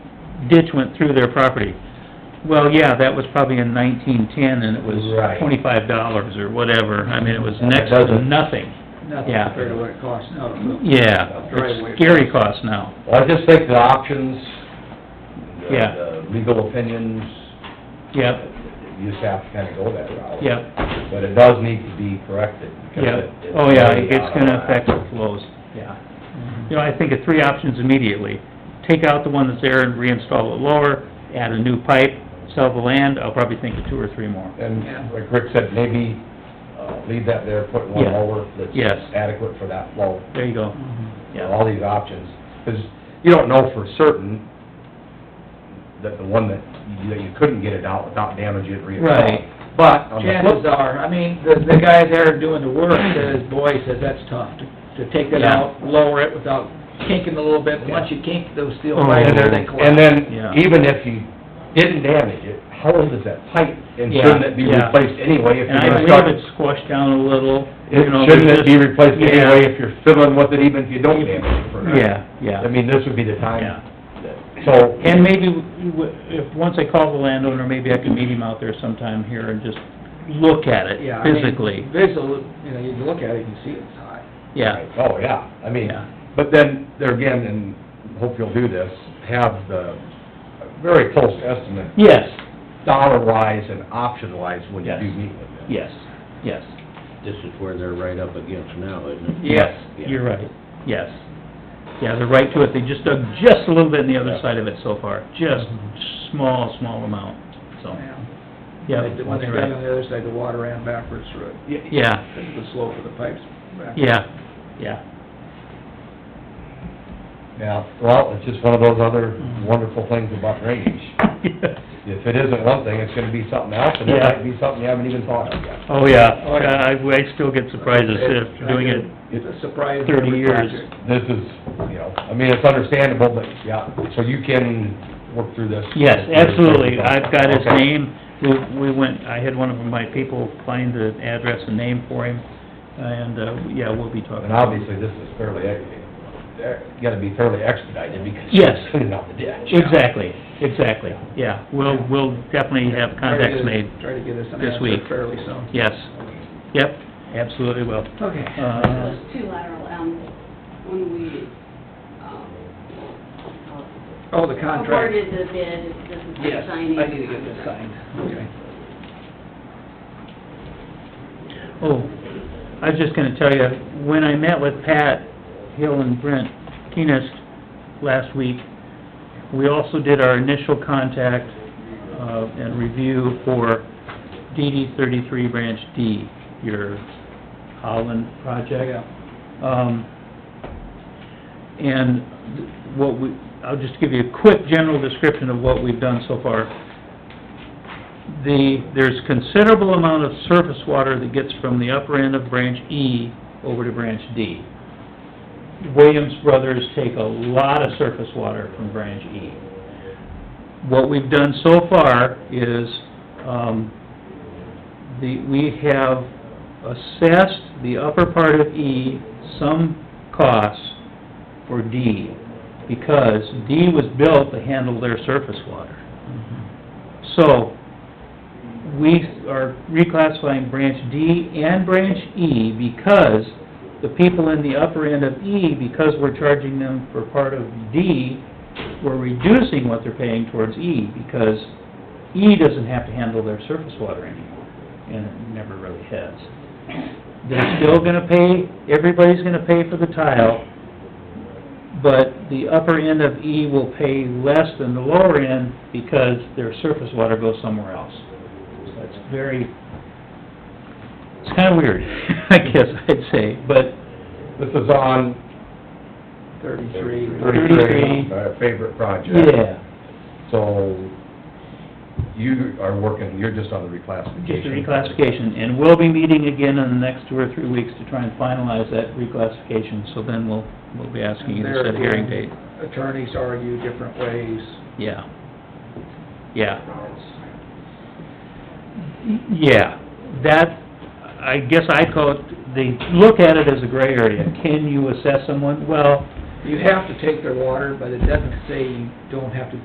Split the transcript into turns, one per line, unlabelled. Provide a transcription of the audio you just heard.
ditch went through their property. Well, yeah, that was probably in nineteen-ten, and it was
Right.
twenty-five dollars or whatever, I mean, it was
And it
next to
doesn't-
nothing.
Nothing
Yeah.
compared to what it costs now. to build
Yeah,
a driveway.
it's scary cost now.
Well, I just think the options, the-
Yeah.
the legal opinions,
Yep,
you just have to kinda go that route.
yep,
But it does need to be corrected. because
yep.
it- it's
Oh, yeah,
way
it's
out of
gonna
whack.
affect the flows, yeah. You know, I think of three options immediately. Take out the one that's there and reinstall it lower, add a new pipe, sell the land, I'll probably think of two or three more.
Yeah.
And like Rick said, maybe uh, leave that there, put one
Yeah.
over
Yes.
that's adequate for that flow.
There you go,
Mhm.
you know,
yeah.
all these options, because you don't know for certain that the one that, you- that you couldn't get it out without damaging it re-
Right.
But on the flip
Chances are, I mean, the, the guy there doing the work says, boy, he says that's tough to, to take it
Yeah.
out, lower it without kinking a little bit. Once you kink those steel
Oh.
pipes,
And
there
then,
they
and
collapse.
then,
Yeah.
even if you didn't damage it, how old is that pipe? And
Yeah,
shouldn't it be
yeah.
replaced anyway if
And
you're
I
gonna
believe
start?
it's squashed down a little, you know.
It- Shouldn't it be
just-
replaced
Yeah.
anyway if you're fiddling with it, even if you don't damage it for now?
Yeah,
I
yeah,
mean, this would be the
yeah.
time, so.
And maybe, we- we- if, once I call the landowner, maybe I can meet him out there sometime here and just look at
Yeah,
it
I mean,
physically,
Visually, you know, you can look at it, you can see it's high.
yeah.
Oh, yeah, I mean,
Yeah.
but then, there again, and hope you'll do this, have the very close estimate,
Yes,
dollar-wise and option-wise, when you
Yes.
do meet with them.
yes, yes,
This is where they're right up against now, isn't it?
yes,
Yeah.
you're right, yes. Yeah, they're right to it, they just dug just a little bit on the other
Yeah.
side of it so far, just small, small amount,
Oh.
so, yeah.
Mm-hmm. When they- When they
you're
ran
right.
on the other side, the water ran backwards through it.
Yeah,
Because of the slope of the pipes. back.
yeah, yeah,
Yeah, well, it's just one of those other
Mm-hmm.
wonderful things about drainage. If it isn't one thing, it's gonna be something else, and it
Yeah.
might be something you haven't even thought of yet.
oh, yeah, oh, yeah, I, I still get surprises if doing it,
It's a surprise.
30
every
years.
project.
This is, you know, I mean, it's understandable, but, yeah, so you can work through this.
yes, absolutely, I've got his
Okay.
name, we, we went, I had one of my people find the address and name for him, and, uh, yeah, we'll be talking.
And obviously, this is fairly, you gotta be fairly expedited because
Yes.
you're cleaning out the ditch.
Exactly, exactly, yeah, we'll, we'll definitely have contacts made,
Try to get us an
this week.
answer fairly soon.
yes, yep, absolutely will.
Okay.
Uh,
Those two lateral M's, when we, um,
Oh, the contract.
awarded the bid, this is the
Yes, I
signing.
need to get this signed. Okay.
Oh, I was just gonna tell you, when I met with Pat Hill and Brent Keenest last week, we also did our initial contact, uh, and review for DD thirty-three Branch D, your Holland project.
Yeah.
Um, and what we, I'll just give you a quick general description of what we've done so far. The, there's considerable amount of surface water that gets from the upper end of branch E over to branch D. Williams Brothers take a lot of surface water from branch E. What we've done so far is, um, the, we have assessed the upper part of E some costs for D, because D was built to handle their surface water. So, we are reclassifying branch D and branch E because the people in the upper end of E, because we're charging them for part of D, we're reducing what they're paying towards E, because E doesn't have to handle their surface water anymore, and it never really has. They're still gonna pay, everybody's gonna pay for the tile, but the upper end of E will pay less than the lower end because their surface water goes somewhere else. So it's very, it's kinda weird, I guess I'd say, but
This is on
Thirty-three.
thirty-three, our uh, favorite project.
yeah,
So you are working, you're just on the
just a
reclassification.
reclassification. And we'll be meeting again in the next two or three weeks to try and finalize that reclassification, so then we'll, we'll be asking you to set a hearing date.
Attorneys argue different ways.
Yeah. Yeah. Yeah, that, I guess I call it, they look at it as a gray area. Can you assess someone? Well,
You have to take their water, but it doesn't say you don't have to